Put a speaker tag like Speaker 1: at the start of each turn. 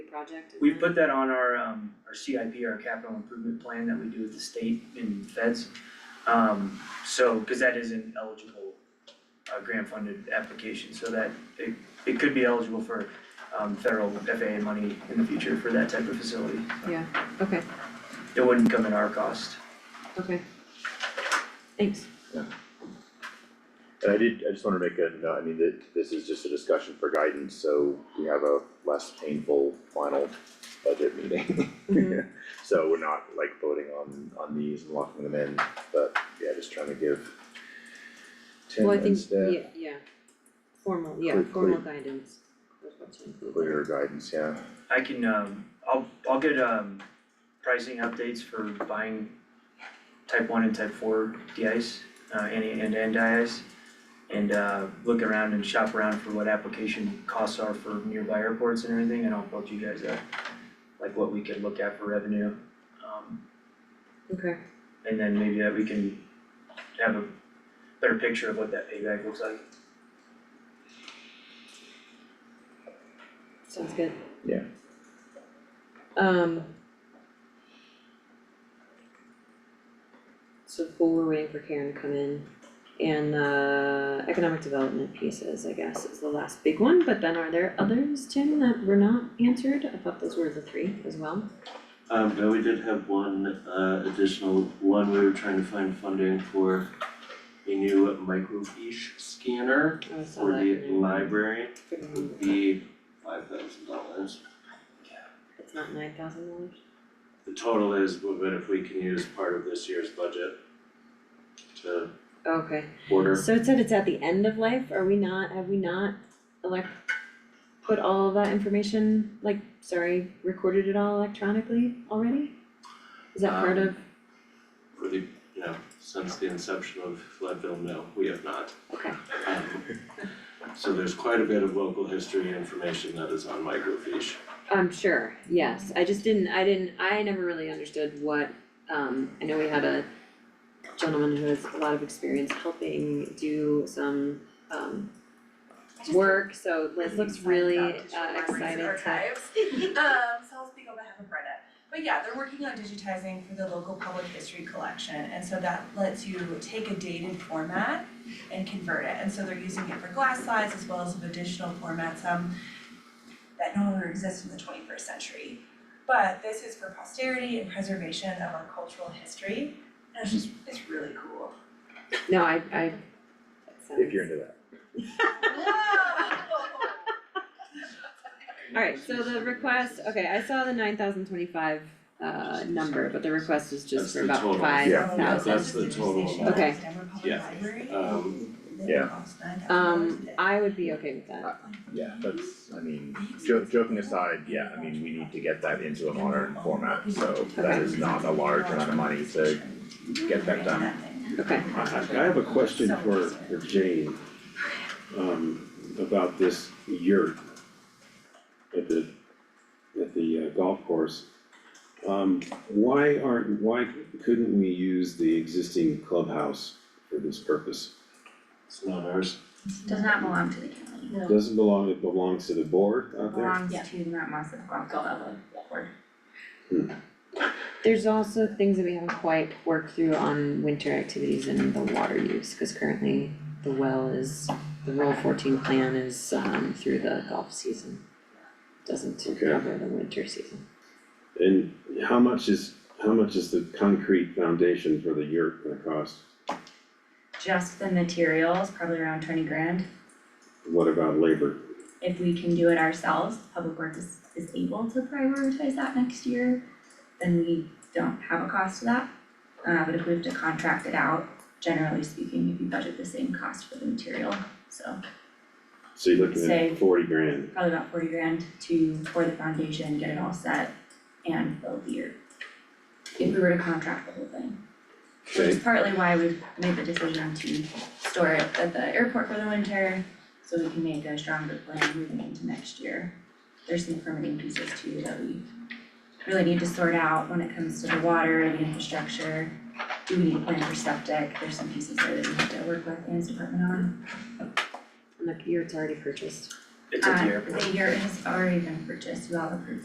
Speaker 1: project?
Speaker 2: We put that on our um our CIP, our capital improvement plan that we do with the state and feds. Um so, cause that is an eligible uh grant funded application, so that it it could be eligible for um federal FAA money in the future for that type of facility.
Speaker 1: Okay,
Speaker 2: It wouldn't come at our cost.
Speaker 1: okay. Thanks.
Speaker 3: And I did, I just wanna make a, note, I mean, that this is just a discussion for guidance, so we have a less painful final budget meeting.
Speaker 1: Mhm.
Speaker 3: So we're not like voting on, on these and locking them in, but yeah, just trying to give Tim
Speaker 1: Well, I
Speaker 3: and
Speaker 1: think,
Speaker 3: staff
Speaker 1: yeah, yeah. Formal, yeah,
Speaker 3: Quick,
Speaker 1: formal
Speaker 3: quick.
Speaker 1: guidance. was what's included.
Speaker 3: clearer guidance, yeah.
Speaker 2: I can um, I'll I'll get um pricing updates for buying type one and type four de-ice, uh and and and de-ice. And uh look around and shop around for what application costs are for nearby airports and everything, and I'll build you guys up. Like what we could look at for revenue, um
Speaker 1: Okay,
Speaker 2: and then maybe that we can have a better picture of what that payback looks like.
Speaker 1: sounds good.
Speaker 3: Yeah.
Speaker 1: Um. So cool, we're waiting for Karen to come in. And the economic development pieces, I guess, is the last big one, but then are there others, Tim, that were not answered? I thought those were the three as well.
Speaker 4: Um, no, we did have one, uh, additional one, we were trying to find funding for a new microfiche scanner
Speaker 1: I uh, saw
Speaker 4: for
Speaker 1: that.
Speaker 4: the library,
Speaker 1: Couldn't remember.
Speaker 4: would be five thousand dollars.
Speaker 1: It's not nine thousand dollars?
Speaker 4: The total is, but if we can use part of this year's budget to
Speaker 1: Okay,
Speaker 4: order,
Speaker 1: so it said it's at the end of life, are we not, have we not elect, put all of that information, like, sorry, recorded it all electronically already? Is that part of,
Speaker 4: for the, you know, since the inception of Leadville, no, we have not.
Speaker 1: okay,
Speaker 4: Um, So there's quite a bit of local history information that is on microfiche.
Speaker 1: I'm sure, yes, I just didn't, I didn't, I never really understood what, um, I know we had a gentleman who has a lot of experience helping do some, um, work, so Liz looks really uh, excited to.
Speaker 5: Archives. Um, so I'll speak on behalf of Brenda. But yeah, they're working on digitizing for the local public history collection, and so that lets you take a dated format and convert it, and so they're using it for glass slides as well as some additional formats, um, that no longer exist in the twenty-first century. But this is for posterity and preservation of our cultural history, and it's just, it's really cool.
Speaker 1: No, I, I.
Speaker 3: If you're into that.
Speaker 1: Alright, so the request, okay, I saw the nine thousand twenty-five uh number, but the request is just
Speaker 4: That's
Speaker 1: for
Speaker 4: the
Speaker 1: about
Speaker 4: total.
Speaker 1: five
Speaker 3: Yeah.
Speaker 1: thousand.
Speaker 4: Yeah, that's the total amount.
Speaker 1: Okay.
Speaker 5: Denver Public
Speaker 4: Yeah.
Speaker 5: Library.
Speaker 4: Um,
Speaker 3: Yeah.
Speaker 1: Um, I would be okay with that,
Speaker 3: Yeah, that's, I mean, jo- joking aside, yeah, I mean, we need to get that into a modern format, so that is not a large amount of money to get that done.
Speaker 1: okay,
Speaker 6: I I- I have a question for for Jane. Um, about this yurt. At the, at the uh, golf course. Um, why aren't, why couldn't we use the existing clubhouse for this purpose?
Speaker 4: It's not ours.
Speaker 7: Does not belong to the county,
Speaker 6: Doesn't belong, it belongs to the board out there?
Speaker 7: belongs to Mount Moss Guava Board.
Speaker 1: there's also things that we haven't quite worked through on winter activities and the water use, cause currently the well is, the roll fourteen plan is um through the golf season. Doesn't
Speaker 6: Okay.
Speaker 1: cover the winter season,
Speaker 6: And how much is, how much is the concrete foundation for the yurt gonna cost?
Speaker 7: Just the materials, probably around twenty grand.
Speaker 6: What about labor?
Speaker 7: If we can do it ourselves, Public Works is, is able to prioritize that next year, then we don't have a cost to that. Uh, but if we have to contract it out, generally speaking, if you budget the same cost for the material, so
Speaker 6: So you're looking
Speaker 7: Say-
Speaker 6: at forty grand.
Speaker 7: probably about forty grand to pour the foundation, get it all set and build the year. If we were to contract the whole thing. Which is
Speaker 6: Okay.
Speaker 7: partly why we made the decision to store it at the airport for the winter, so we can make a stronger plan moving into next year. There's some permitting pieces too that we really need to sort out when it comes to the water and the infrastructure. Do we need a plan for septic? There's some pieces there that we have to work with Anne's department on.
Speaker 1: and the year's already purchased.
Speaker 2: It's at
Speaker 7: Uh,
Speaker 2: the airport.
Speaker 7: The yurt has already been purchased, we all approved